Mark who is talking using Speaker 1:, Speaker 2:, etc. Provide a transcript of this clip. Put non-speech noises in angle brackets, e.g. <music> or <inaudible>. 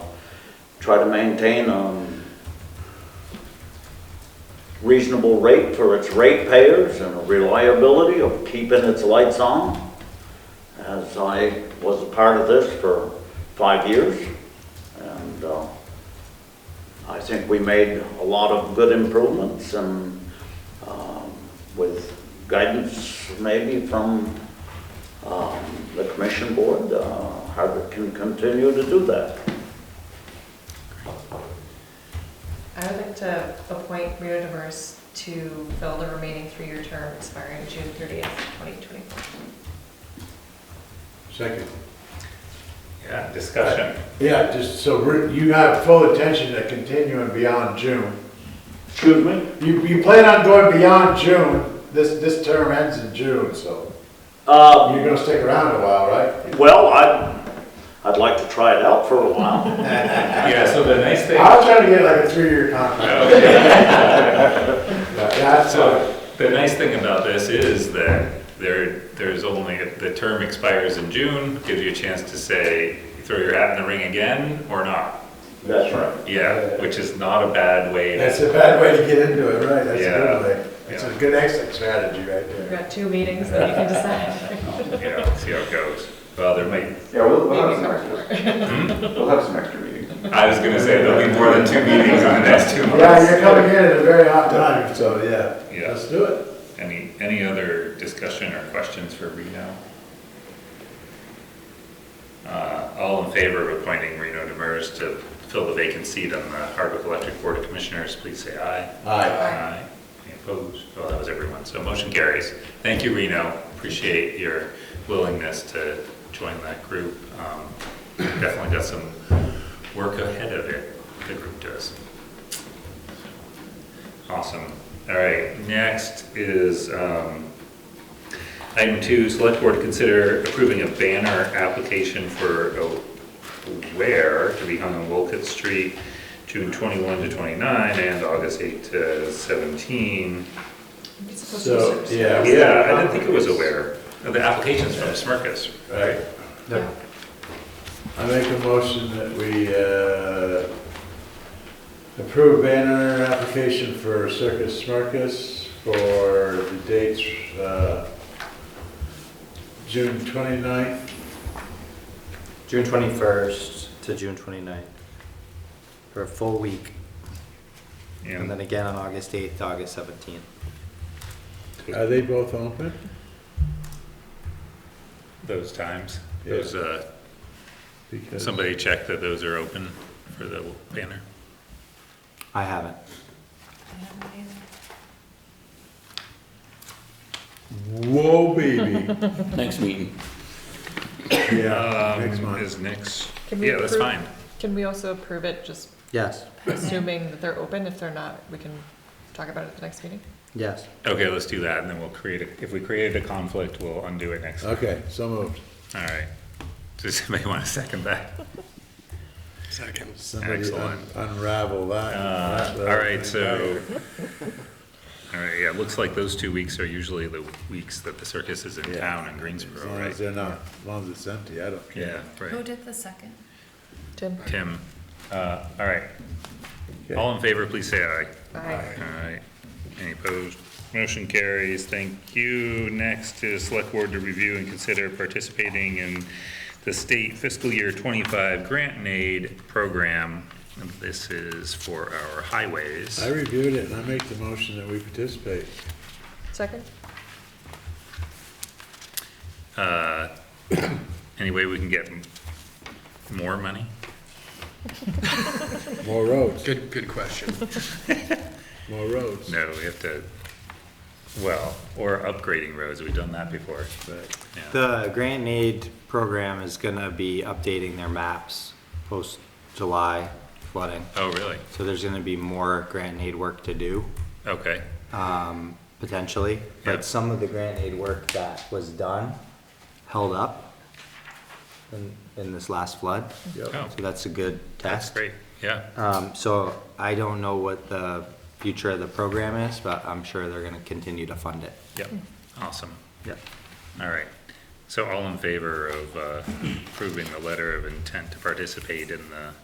Speaker 1: try to maintain um, a reasonable rate for its ratepayers and a reliability of keeping its lights on, as I was a part of this for five years. And uh, I think we made a lot of good improvements and um, with guidance maybe from um, the commission board, uh, Hardwick can continue to do that.
Speaker 2: I would like to appoint Rita DeVers to fill the remaining three-year term expiring June 30th, 2024.
Speaker 3: Second.
Speaker 4: Yeah, discussion.
Speaker 3: Yeah, just so we're- you have full attention to continuing beyond June.
Speaker 1: Excuse me?
Speaker 3: You, you plan on going beyond June, this, this term ends in June, so
Speaker 1: Uh,
Speaker 3: you're gonna stick around a while, right?
Speaker 1: well, I, I'd like to try it out for a while.
Speaker 4: Yeah, so the nice thing,
Speaker 3: I'll try to get like a three-year contract. But That's, uh,
Speaker 4: so the nice thing about this is that there, there's only, the term expires in June, gives you a chance to say, throw your hat in the ring again or not.
Speaker 1: That's right.
Speaker 4: Yeah, which is not a bad way. to-
Speaker 3: that's a bad way to get into it, right? That's a
Speaker 4: Yeah.
Speaker 3: good way. That's a
Speaker 4: Yeah.
Speaker 3: good exit strategy right
Speaker 2: We've
Speaker 3: there.
Speaker 2: got two meetings that you
Speaker 5: <laughs>
Speaker 2: can decide.
Speaker 4: Yeah, see how it goes. Well, there might,
Speaker 6: Yeah, we'll, we'll have
Speaker 2: Maybe
Speaker 6: some
Speaker 2: cover
Speaker 6: extras. We'll have some extra meetings.
Speaker 4: I was gonna say there'll be more than two meetings in the next two
Speaker 3: Yeah, you're
Speaker 4: months.
Speaker 3: coming in at a very hot time, so yeah,
Speaker 4: Yeah.
Speaker 3: let's do it.
Speaker 4: Any, any other discussion or questions for Reno? Uh, all in favor of appointing Reno Demers to fill the vacant seat on the Hardwick Electric Board of Commissioners, please say aye.
Speaker 3: Aye.
Speaker 4: Aye. Any opposed? Well, that was everyone, so motion carries. Thank you, Reno, appreciate your willingness to join that group. Um, Definitely got some work ahead of it, the group does. Awesome, all right, next is um, item two, select board to consider approving a banner application for a where to be hung on Wolcott Street, June 21 to 29, and August 8 to 17.
Speaker 2: It's supposed to be
Speaker 3: So,
Speaker 2: six.
Speaker 3: yeah. we-
Speaker 4: Yeah, I didn't think it was aware. The application's from Smirkus.
Speaker 3: Right.
Speaker 2: Yeah.
Speaker 3: I make a motion that we uh, approve banner application for Circus Smirkus for the dates, uh, June 29th,
Speaker 7: June 21st to June 29th, for a full week, and
Speaker 4: And
Speaker 7: then again on August 8th to August 17th.
Speaker 3: are they both open?
Speaker 4: those times,
Speaker 3: Yeah.
Speaker 4: those, uh,
Speaker 3: Because
Speaker 4: somebody check that those are open for the banner.
Speaker 7: I haven't.
Speaker 3: Whoa, baby.
Speaker 8: <laughs> Next meeting.
Speaker 3: Yeah,
Speaker 4: Um,
Speaker 3: next month.
Speaker 4: Is next,
Speaker 2: Can we
Speaker 4: yeah, that's
Speaker 2: approve-
Speaker 4: fine.
Speaker 2: Can we also approve it, just
Speaker 7: Yes,
Speaker 2: assuming that they're open? If they're not, we can talk about it at the next meeting?
Speaker 7: yes.
Speaker 4: Okay, let's do that, and then we'll create, a- if we created a conflict, we'll undo it next. All
Speaker 3: Okay, so moved.
Speaker 4: right. Does somebody want to second that? Second.
Speaker 3: Somebody un-
Speaker 4: Excellent.
Speaker 3: unravel that.
Speaker 4: Uh,
Speaker 3: That's what I
Speaker 4: All
Speaker 3: was
Speaker 4: right,
Speaker 3: thinking.
Speaker 4: so, all right, yeah, it looks like those two weeks are usually the weeks that the circus is in
Speaker 3: Yeah.
Speaker 4: town in
Speaker 3: As
Speaker 4: Greensboro,
Speaker 3: long as
Speaker 4: right?
Speaker 3: they're not, as long as it's empty, I don't care.
Speaker 4: Yeah,
Speaker 5: Who
Speaker 4: right.
Speaker 5: did the second?
Speaker 2: Tim?
Speaker 4: Tim, uh, all right. All in favor, please say aye.
Speaker 2: Aye.
Speaker 4: All right, any opposed? Motion carries, thank you. Next is select board to review and consider participating in the state fiscal year twenty-five grant and aid program. And This is for our highways.
Speaker 3: I reviewed it and I make the motion that we participate.
Speaker 2: Second?
Speaker 4: uh, any way we can get m- more money?
Speaker 3: More roads,
Speaker 8: Good, good question.
Speaker 3: <laughs> more roads.
Speaker 4: No, we have to, well, or upgrading roads, we've done that before.
Speaker 3: Right.
Speaker 4: Yeah.
Speaker 7: The grant and aid program is gonna be updating their maps post-July flooding.
Speaker 4: Oh, really?
Speaker 7: So there's gonna be more grant and aid work to do,
Speaker 4: Okay,
Speaker 7: um, potentially.
Speaker 4: Yeah.
Speaker 7: But some of the grant and aid work that was done held up in, in this last flood.
Speaker 4: oh,
Speaker 7: So that's a good
Speaker 4: that's
Speaker 7: test.
Speaker 4: great, yeah,
Speaker 7: Um, so I don't know what the future of the program is, but I'm sure they're gonna continue to fund it.
Speaker 4: yep, awesome,
Speaker 7: Yep.
Speaker 4: all right. So all in favor of uh, approving the letter of intent to participate in the